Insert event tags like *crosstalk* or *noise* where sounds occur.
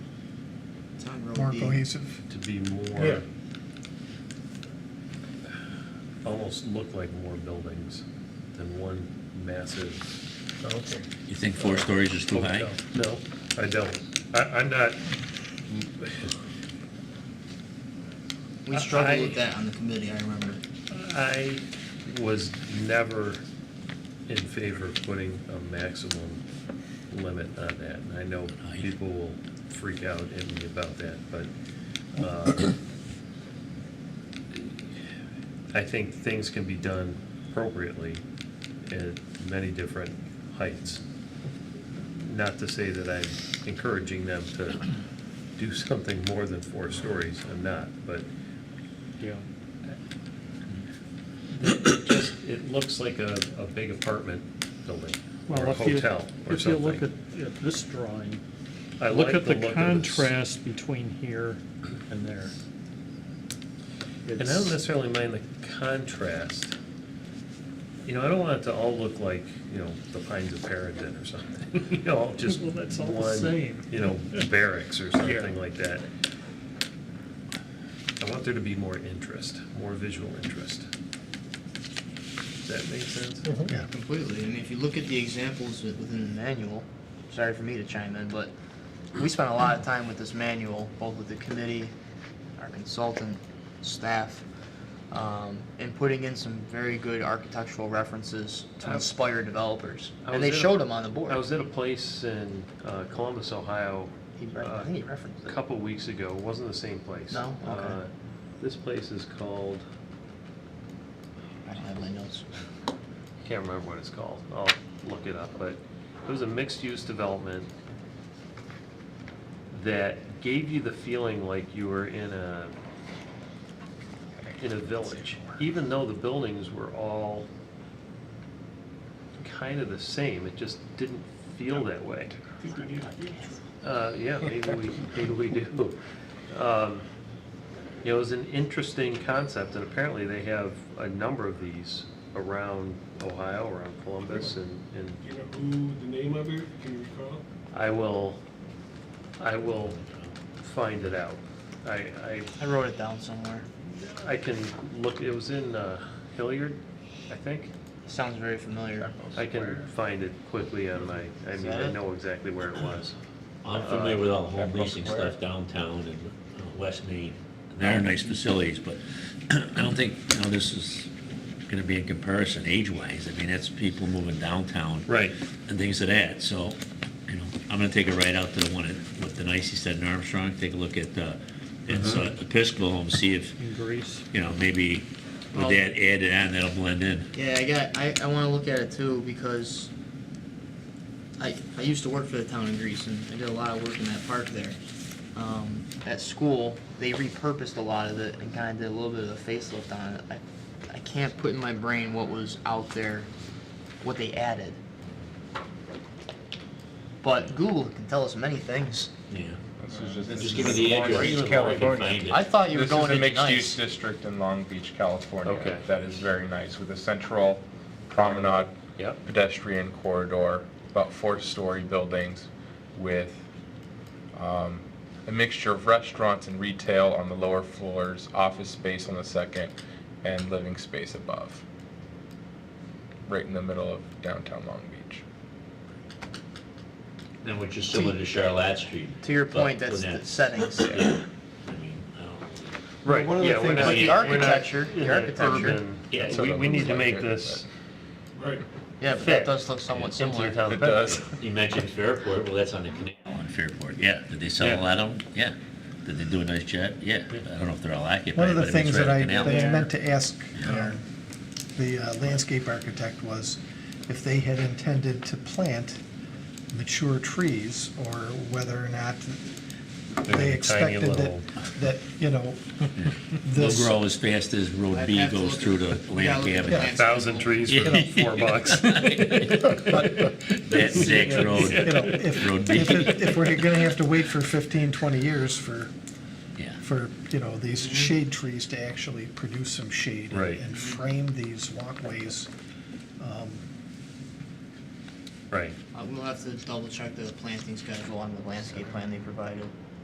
on row more B. cohesive. to be Yeah. more, almost look like more buildings than one massive. Okay. You think four stories is too high? hotel. No, I don't. I, I'm not, *laughs* We I- struggled I- with that on the committee, I remember. I was never in favor of putting a maximum limit on that. And I know Right. people will freak out at me about that, but uh, I think things can be done appropriately at many different heights. Not to say that I'm encouraging them to do something more than four stories, I'm not, but Yeah. just, it looks like a, a big apartment building or Well, a if you- hotel or If you look at, something. at this drawing, I look like at the look of this. contrast between here and there. And I It's- don't necessarily mind the contrast. You know, I don't want it to all look like, you know, the Pines of Paradise or something, *laughs* you know, just Well, that's all the one, same. you know, barracks or something like that. I want there to be more interest, more visual interest. Does that make sense? Yeah, completely. I mean, if you look at the examples wi- within the manual, sorry for me to chime in, but we spent a lot of time with this manual, both with the committee, our consultant, staff, um, and putting in some very good architectural references to I- inspire developers. I And was they in a- showed them on the board. I was at a place in uh, Columbus, Ohio, He re- I uh, think he referenced a it. couple weeks ago. It wasn't the same place. No? Okay. Uh, This place is called, I don't have my notes. I can't remember what it's called. I'll look it up, but it was a mixed-use development that gave you the feeling like you were in a, in a village, even though the buildings were all kind of the same. It just didn't feel that way. Uh, yeah, maybe we, maybe we do. Um, You know, it was an interesting concept, and apparently they have a number of these around Ohio, around Columbus, and, and You know who the name of it, can you recall? I will, I will find it out. I, I wrote it down somewhere. I, I can look, it was in uh, Hilliard, I think. Sounds very familiar. I can find it quickly on my, I mean, I know exactly where it was. I'm familiar with all the home leasing stuff downtown and uh, West Main. There are nice facilities, but *clears throat* I don't think, you know, this is gonna be in comparison age-wise. I mean, that's people moving downtown. Right. And things of that, so, you know, I'm gonna take it right out to the one at, what the nice he said in Armstrong, take a look at, uh, it's Uh-huh. uh, Episcopal and see if, In Greece. you know, maybe with Well- that added on, that'll blend in. Yeah, I got. I, I want to look at it too because I I used to work for the town of Greece and I did a lot of work in that park there. Um, at school, they repurposed a lot of it and kind of did a little bit of a facelift on it. I, I can't put in my brain what was out there, what they added. But Google can tell us many things. Yeah. Just give me the address, Orange, so I can California. find I it. thought you were This is going a into mixed-use nice. district in Long Beach, California. Okay. That is very nice, with a central promenade Yep. pedestrian corridor, about four-story buildings with um, a mixture of restaurants and retail on the lower floors, office space on the second, and living space above, right in the middle of downtown Long Beach. And which is similar to Charlotte Street. To your but point, that's with the that- settings. I mean, I don't- Right, One of the yeah, we're things- not. But the we're not architecture- the in an architecture- urban- Yeah, Yeah, we, we need to make Right. this Right. Yeah, but that does look somewhat into similar. your town. It does. You mentioned Fairport, well, that's on the canal. On Fairport, yeah. Did they sell Yeah. a lot of them? Yeah. Did they do a nice job? Yeah. I don't know if they're all occupied, One of the but I mean, it's things right that on I, the canal. that I meant to ask uh, Yeah. the uh, landscape architect was if they had intended to plant mature trees or whether or not they tiny expected that, little- that, you know, They'll this, grow as fast as Road I'd B have to goes look through at- to Atlantic Yeah, look at Avenue. that. Thousand trees for Yeah. four *laughs* bucks. That's Zach's *laughs* Road, you know, if, Road B. if, it- if we're gonna have to wait for 15, 20 years for, Yeah. for, you know, these shade trees to actually produce some shade. Right. And frame these walkways. Right. Uh, We'll have to double check the planting schedule on the landscape plan they provided.